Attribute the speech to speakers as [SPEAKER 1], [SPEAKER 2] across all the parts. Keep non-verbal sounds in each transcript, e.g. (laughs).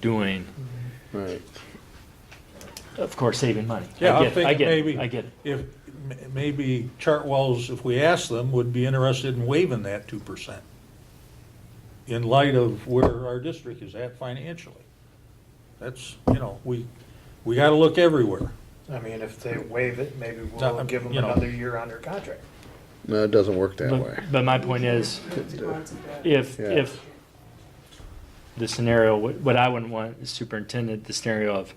[SPEAKER 1] doing,
[SPEAKER 2] Right.
[SPEAKER 1] of course, saving money. I
[SPEAKER 3] Yeah, I'm
[SPEAKER 1] get it, I
[SPEAKER 3] thinking
[SPEAKER 1] get it,
[SPEAKER 3] maybe-
[SPEAKER 1] I get it.
[SPEAKER 3] If, m- maybe Chartwell's, if we asked them, would be interested in waiving that two percent in light of where our district is at financially. That's, you know, we, we gotta look everywhere.
[SPEAKER 4] I mean, if they waive it, maybe
[SPEAKER 3] No,
[SPEAKER 4] we'll give them
[SPEAKER 3] you know.
[SPEAKER 4] another year on their contract.
[SPEAKER 2] No, it doesn't work that way.
[SPEAKER 1] But, but my point is, if,
[SPEAKER 2] Yeah.
[SPEAKER 1] if the scenario, what what I wouldn't want is superintendent, the scenario of,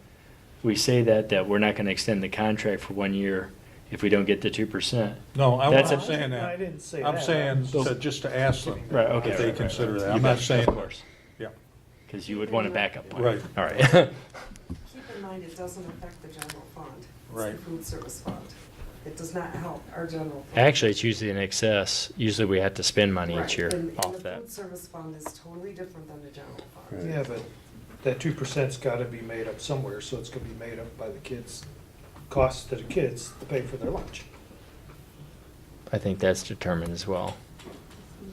[SPEAKER 1] we say that, that we're not gonna extend the contract for one year if we don't get the two percent.
[SPEAKER 3] No, I'm
[SPEAKER 1] That's
[SPEAKER 3] not
[SPEAKER 1] a-
[SPEAKER 3] saying
[SPEAKER 4] I
[SPEAKER 3] that.
[SPEAKER 4] didn't say that.
[SPEAKER 3] I'm saying,
[SPEAKER 1] So-
[SPEAKER 3] to- just to ask them
[SPEAKER 1] Right, okay.
[SPEAKER 3] if
[SPEAKER 1] right,
[SPEAKER 3] they
[SPEAKER 1] right,
[SPEAKER 3] consider
[SPEAKER 1] right.
[SPEAKER 3] that.
[SPEAKER 1] You
[SPEAKER 3] I'm
[SPEAKER 1] got
[SPEAKER 3] not
[SPEAKER 1] it,
[SPEAKER 3] saying,
[SPEAKER 1] Of course,
[SPEAKER 3] yeah,
[SPEAKER 1] because you would want a backup plan.
[SPEAKER 3] Right.
[SPEAKER 1] All right.
[SPEAKER 5] Keep in mind, it doesn't affect the general fund.
[SPEAKER 3] Right.
[SPEAKER 5] It's the food service fund. It does not help our general. fund.
[SPEAKER 1] (laughs) Actually, it's usually in excess. Usually we have to spend money
[SPEAKER 5] Right,
[SPEAKER 1] each year
[SPEAKER 5] and-
[SPEAKER 1] off
[SPEAKER 5] And the
[SPEAKER 1] that.
[SPEAKER 5] food service fund is totally different than the general fund.
[SPEAKER 4] Yeah, but that two percent's gotta be made up somewhere, so it's gonna be made up by the kids, costs to the kids to pay for their lunch.
[SPEAKER 1] I think that's determined as well.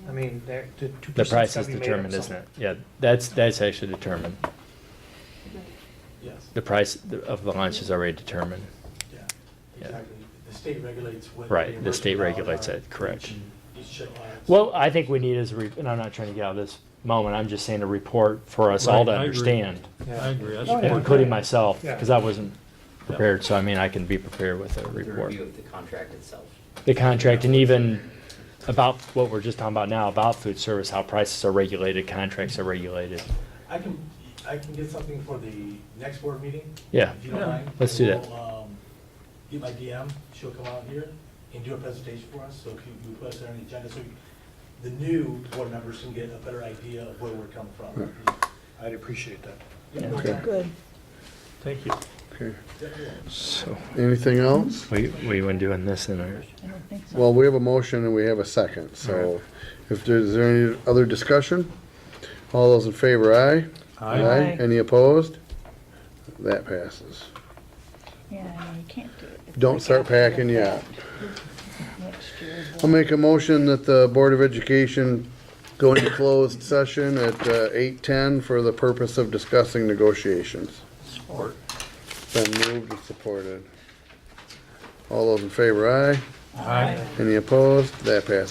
[SPEAKER 4] I mean, that, the two percent.
[SPEAKER 1] The price is determined, isn't it? Yeah, that's, that's actually determined.
[SPEAKER 6] Yes,
[SPEAKER 1] The price of the lunch is already determined.
[SPEAKER 6] yeah,
[SPEAKER 1] Yeah.
[SPEAKER 6] exactly. The state regulates what.
[SPEAKER 1] Right, the state
[SPEAKER 6] reimbursement
[SPEAKER 1] regulates
[SPEAKER 6] dollars
[SPEAKER 1] it,
[SPEAKER 6] are
[SPEAKER 1] correct.
[SPEAKER 6] each- Each check lines.
[SPEAKER 1] Well, I think we need is, a re- and I'm not trying to get out of this moment, I'm just saying a report for us all to
[SPEAKER 3] Right, I agree.
[SPEAKER 1] understand,
[SPEAKER 3] I agree. That's
[SPEAKER 4] Oh, yeah.
[SPEAKER 3] important.
[SPEAKER 1] including myself,
[SPEAKER 4] Yeah.
[SPEAKER 1] because I wasn't prepared, so I mean, I can be prepared with a
[SPEAKER 7] the
[SPEAKER 1] report.
[SPEAKER 7] review of the contract itself.
[SPEAKER 1] The contract and even about what we're just talking about now, about food service, how prices are regulated, contracts are regulated.
[SPEAKER 6] I can, I can get something for the next board meeting.
[SPEAKER 1] Yeah.
[SPEAKER 6] If you don't
[SPEAKER 3] Yeah.
[SPEAKER 6] mind.
[SPEAKER 1] Let's do that.
[SPEAKER 6] We'll, um, Get my DM, she'll come out here and do a presentation for us, so can you put us on the agenda, so the new board members can get a better idea of where we're coming from.
[SPEAKER 4] I'd appreciate that.
[SPEAKER 6] Yeah, no
[SPEAKER 1] Okay.
[SPEAKER 6] problem.
[SPEAKER 8] Good.
[SPEAKER 3] Thank you.
[SPEAKER 2] Okay.
[SPEAKER 6] Yeah, you're welcome.
[SPEAKER 1] So,
[SPEAKER 2] Anything else?
[SPEAKER 1] we, we went doing this in our,
[SPEAKER 8] I don't think so.
[SPEAKER 2] Well, we have a motion and we have a second, so if there's, is there any other discussion? All those in favor, aye?
[SPEAKER 8] Aye.
[SPEAKER 2] Any opposed? That passes.
[SPEAKER 8] Yeah, I mean, you can't do it. It's
[SPEAKER 2] Don't
[SPEAKER 8] like
[SPEAKER 2] start
[SPEAKER 8] after the
[SPEAKER 2] packing yet.
[SPEAKER 8] fact. Next year.
[SPEAKER 2] I'll make a motion that the Board of Education go into closed session at uh, 8:10 for the purpose of discussing negotiations.
[SPEAKER 3] Support.
[SPEAKER 2] Been moved and supported. All those in favor, aye?
[SPEAKER 3] Aye.
[SPEAKER 2] Any opposed? That passes.